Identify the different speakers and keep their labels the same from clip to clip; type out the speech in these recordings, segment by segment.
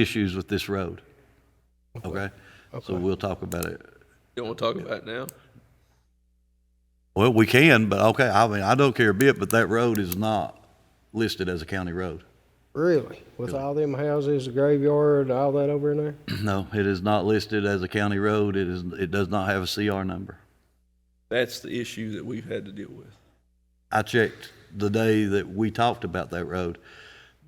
Speaker 1: issues with this road. Okay? So we'll talk about it.
Speaker 2: You don't want to talk about it now?
Speaker 1: Well, we can, but okay, I mean, I don't care a bit, but that road is not listed as a county road.
Speaker 3: Really? With all them houses, the graveyard, all that over in there?
Speaker 1: No, it is not listed as a county road. It is, it does not have a CR number.
Speaker 2: That's the issue that we've had to deal with.
Speaker 1: I checked the day that we talked about that road.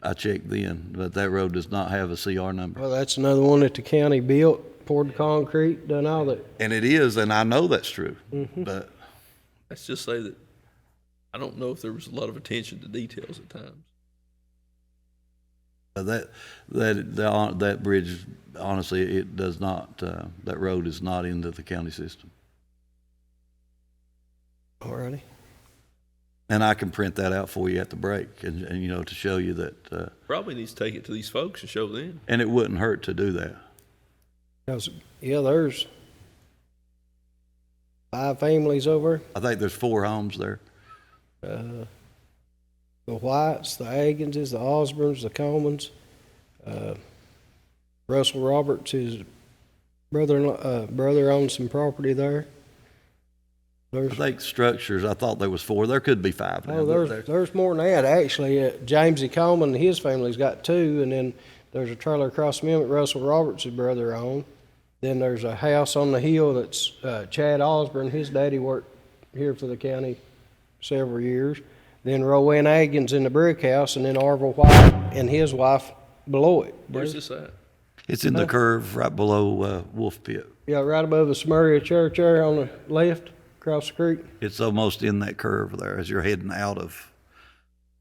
Speaker 1: I checked then, but that road does not have a CR number.
Speaker 3: Well, that's another one that the county built, poured the concrete, done all that.
Speaker 1: And it is, and I know that's true, but
Speaker 2: Let's just say that I don't know if there was a lot of attention to details at times.
Speaker 1: Uh, That, that, that, that bridge, honestly, it does not, uh, that road is not into the county system.
Speaker 3: Alrighty.
Speaker 1: And I can print that out for you at the break and, and, you know, to show you that, uh,
Speaker 2: Probably needs to take it to these folks and show them.
Speaker 1: and it wouldn't hurt to do that.
Speaker 3: 'Cause, yeah, there's five families over,
Speaker 1: I think there's four homes there.
Speaker 3: uh, the Whites, the Aginses, the Osborns, the Comans. Uh, Russell Roberts, his brother, uh, brother owns some property there.
Speaker 1: I
Speaker 3: There's
Speaker 1: think structures, I thought there was four. There could be five now.
Speaker 3: Oh,
Speaker 1: but
Speaker 3: there's, there's more than that, actually. Uh, James E. Coleman and his family's got two, and then there's a trailer across from him that Russell Roberts' brother owned. Then there's a house on the hill that's uh, Chad Osborne, his daddy worked here for the county several years. Then Rowan Agan's in the brick house, and then Arville White and his wife below it.
Speaker 2: Where's this at?
Speaker 1: It's in the curve right below, uh, Wolf Pit.
Speaker 3: Yeah, right above the Smurria Church there on the left, across the creek.
Speaker 1: It's almost in that curve there as you're heading out of,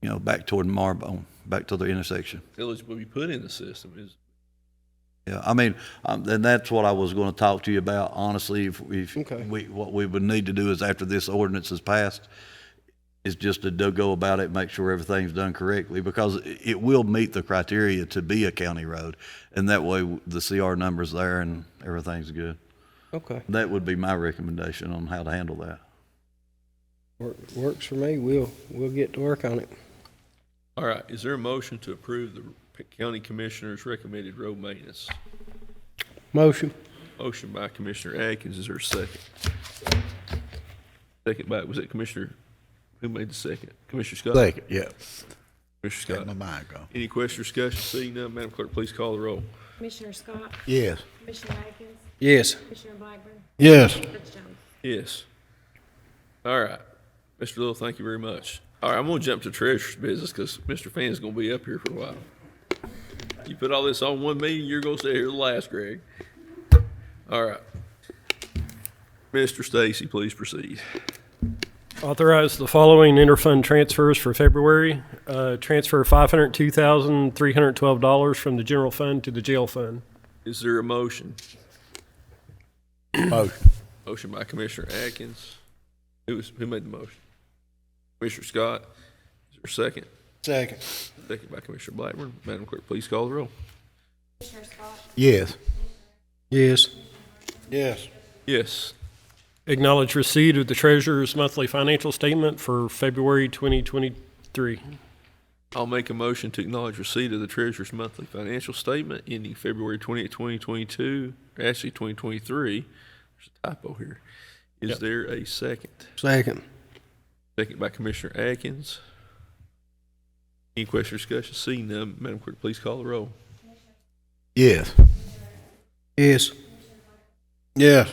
Speaker 1: you know, back toward Marbone, back to the intersection.
Speaker 2: Village will be put in the system is,
Speaker 1: Yeah, I mean, um, and that's what I was gonna talk to you about, honestly, if, if
Speaker 3: Okay.
Speaker 1: we, what we would need to do is after this ordinance is passed, is just to do- go about it, make sure everything's done correctly, because i- it will meet the criteria to be a county road. And that way, w- the CR number's there and everything's good.
Speaker 3: Okay.
Speaker 1: That would be my recommendation on how to handle that.
Speaker 3: Works for me. We'll, we'll get to work on it.
Speaker 2: all right, is there a motion to approve the county commissioner's recommended road maintenance?
Speaker 3: Motion.
Speaker 2: Motion by Commissioner Atkins, is there a second? Second by, was it Commissioner, who made the second? Commissioner Scott?
Speaker 4: Second, yeah.
Speaker 2: Commissioner
Speaker 4: Got my
Speaker 2: Scott.
Speaker 4: mind going.
Speaker 2: Any question or discussion? Seeing none, Madam Clerk, please call the roll.
Speaker 5: Commissioner Scott,
Speaker 4: Yes.
Speaker 5: Commissioner Atkins,
Speaker 3: Yes.
Speaker 5: Commissioner Blackburn,
Speaker 4: Yes.
Speaker 5: Judge Jones.
Speaker 2: Yes. All right. Mr. Little, thank you very much. All right, I'm gonna jump to treasurer's business because Mr. Fan's gonna be up here for a while. You put all this on one meeting, you're gonna stay here the last, Greg. All right. Mr. Stacy, please proceed.
Speaker 6: Authorize the following interfund transfers for February. Uh, Transfer $502,312 from the general fund to the jail fund.
Speaker 2: Is there a motion?
Speaker 4: Motion.
Speaker 2: Motion by Commissioner Atkins. Who was, who made the motion? Commissioner Scott. Is there a second?
Speaker 3: Second.
Speaker 2: Second by Commissioner Blackburn. Madam Clerk, please call the roll.
Speaker 5: Commissioner Scott,
Speaker 4: Yes.
Speaker 3: Yes.
Speaker 4: Yes.
Speaker 2: Yes.
Speaker 6: Acknowledge receipt of the treasurer's monthly financial statement for February 2023.
Speaker 2: I'll make a motion to acknowledge receipt of the treasurer's monthly financial statement ending February 20th, 2022, or actually 2023. There's a typo here. Is
Speaker 6: Yep.
Speaker 2: there a second?
Speaker 3: Second.
Speaker 2: Second by Commissioner Atkins. Any question or discussion? Seeing none, Madam Clerk, please call the roll.
Speaker 4: Yes.
Speaker 3: Yes.
Speaker 4: Yes.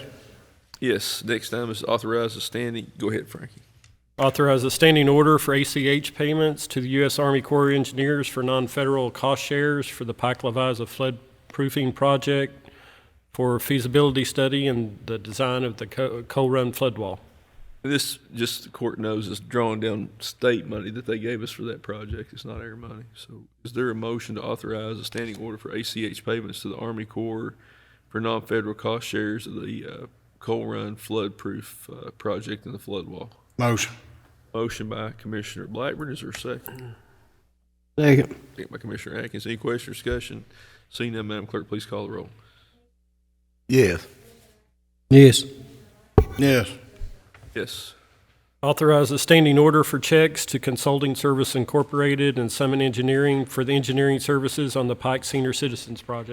Speaker 2: Yes, next time is authorize the standing. Go ahead, Frankie.
Speaker 6: Authorize a standing order for ACH payments to the U.S. Army Corps of Engineers for non-federal cost shares for the Pike Leviza flood proofing project for feasibility study and the design of the Co- Coal Run flood wall.
Speaker 2: This, just the court knows, is drawing down state money that they gave us for that project. It's not our money. So is there a motion to authorize a standing order for ACH payments to the Army Corps for non-federal cost shares of the uh, Coal Run flood-proof uh, project and the flood wall?
Speaker 4: Motion.
Speaker 2: Motion by Commissioner Blackburn. Is there a second?
Speaker 3: Second.
Speaker 2: Second by Commissioner Atkins. Any question or discussion? Seeing none, Madam Clerk, please call the roll.
Speaker 4: Yes.
Speaker 3: Yes.
Speaker 4: Yes.
Speaker 2: Yes.
Speaker 6: Authorize a standing order for checks to Consulting Service Incorporated and Summit Engineering for the engineering services on the Pike Senior Citizens Project.